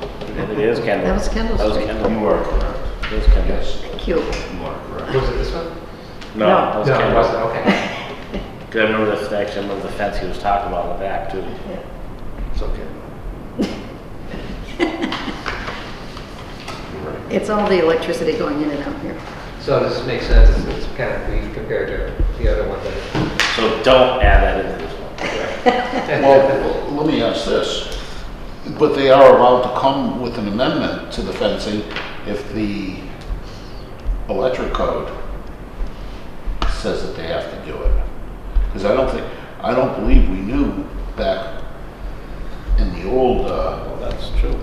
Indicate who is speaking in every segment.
Speaker 1: It is Kendall.
Speaker 2: That was Kendall
Speaker 1: That was
Speaker 2: Street.
Speaker 1: Kendall.
Speaker 3: You are correct.
Speaker 1: It was Kendall.
Speaker 3: Yes,
Speaker 2: Thank you.
Speaker 3: you are correct.
Speaker 4: Was it this one?
Speaker 1: No,
Speaker 2: No.
Speaker 1: that was Kendall.
Speaker 4: okay.
Speaker 1: Because I remember the fence, I remember the fence he was talking about in the back too.
Speaker 3: It's okay. You're right.
Speaker 2: It's all the electricity going in and out here.
Speaker 4: So does this make sense? It's kind of weak compared to the other one that.
Speaker 1: So don't add that into this one.
Speaker 5: Well, let me ask this, but they are allowed to come with an amendment to the fencing if the electric code says that they have to do it. Because I don't think, I don't believe we knew back in the old, uh,
Speaker 3: Well, that's true.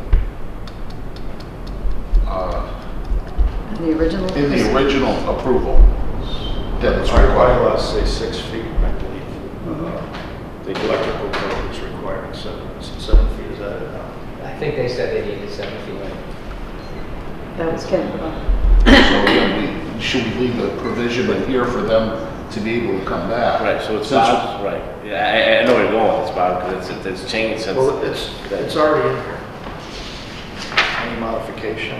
Speaker 5: uh,
Speaker 2: In the original.
Speaker 5: in the original approval that it's
Speaker 3: Our
Speaker 5: required.
Speaker 3: bylaws say six feet, I believe. Uh, The electrical code is requiring seven, is it seven feet, is that it now?
Speaker 4: I think they said they needed seven feet.
Speaker 2: That was Kendall.
Speaker 5: So yeah, we, should we leave the provision in here for them to be able to come back?
Speaker 1: Right, so it's
Speaker 5: Since-
Speaker 1: Bob's, right. Yeah, I, I- I know where you're going with this, Bob, because it's, it's changed since.
Speaker 3: Well, it's,
Speaker 1: that-
Speaker 3: it's already in here. Any modification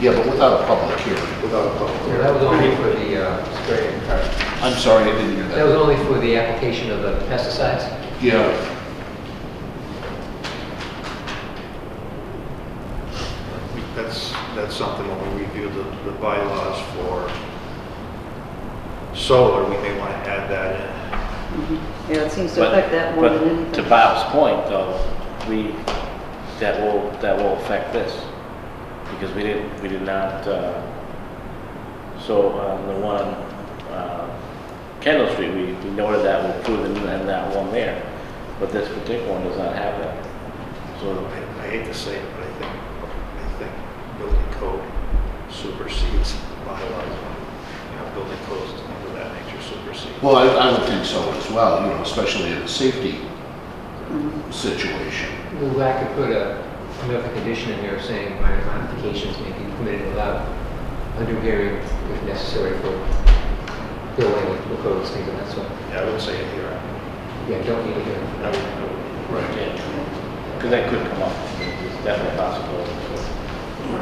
Speaker 5: Yeah, but without a public hearing.
Speaker 3: without a public
Speaker 4: Well,
Speaker 3: hearing?
Speaker 4: that was only for the uh, spraying part.
Speaker 5: I'm sorry, I didn't hear
Speaker 4: That was
Speaker 5: that.
Speaker 4: only for the application of the pesticides.
Speaker 5: Yeah,
Speaker 3: That's, that's something when we review the, the bylaws for solar, we may want to add that
Speaker 2: Yeah, it seems to
Speaker 1: But-
Speaker 2: affect that more
Speaker 1: but
Speaker 2: than anything.
Speaker 1: To Bob's point, though, we, that will, that will affect this, because we didn't, we did not, uh, so on the one, uh, Kendall Street, we we noted that, we approved it, and that one there, but this particular one does not have that.
Speaker 3: in.
Speaker 1: So,
Speaker 3: I I hate to say it, but I think, I think building code supersedes bylaws. You know, building codes and things of that nature supersede.
Speaker 5: well, I, I would think so as well, you know, especially in a safety situation.
Speaker 4: Well, I could put a, another condition in there saying minor modifications may be permitted without under hearing if necessary for building with codes, things of that sort.
Speaker 3: Yeah, I would say it here.
Speaker 4: Yeah, don't need to hear.
Speaker 3: I would- I would-
Speaker 1: because that could come up, it's definitely possible.
Speaker 5: I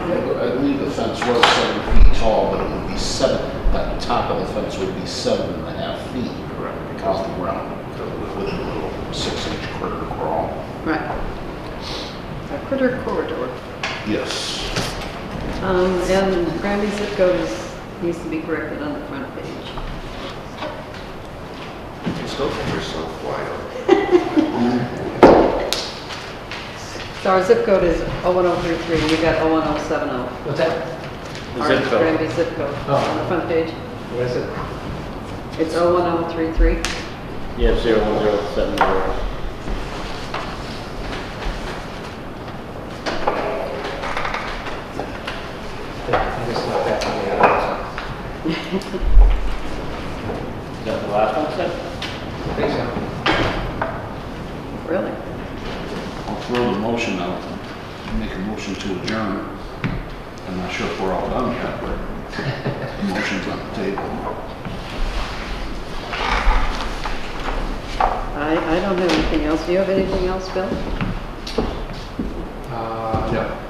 Speaker 5: believe the fence was seven feet tall, but it would be seven, that the top of the fence would be seven and a half feet
Speaker 3: Correct,
Speaker 5: off the ground
Speaker 3: because of the-
Speaker 5: with a little six-inch quarter crawl.
Speaker 2: Right. A critter corridor.
Speaker 5: Yes.
Speaker 2: Um, and Granby zip code is, needs to be corrected on the front page.
Speaker 3: You still think you're so quiet.
Speaker 2: So our zip code is 01033, you got 01070.
Speaker 4: What's that?
Speaker 1: The
Speaker 2: Our
Speaker 1: zip code.
Speaker 2: Granby zip code
Speaker 4: Oh.
Speaker 2: on the front page.
Speaker 4: What is it?
Speaker 2: It's 01033.
Speaker 1: Yeah, zero one zero seven zero.
Speaker 4: I just left that on the other
Speaker 1: Is that the last one, Seth?
Speaker 4: side. I think so.
Speaker 2: Really?
Speaker 5: I'll throw the motion out, make a motion to adjourn. I'm not sure if we're all done yet, but the motion's on the table.
Speaker 2: I, I don't have anything else. Do you have anything else, Bill?
Speaker 4: Uh, no.
Speaker 1: Uh.
Speaker 2: Uh,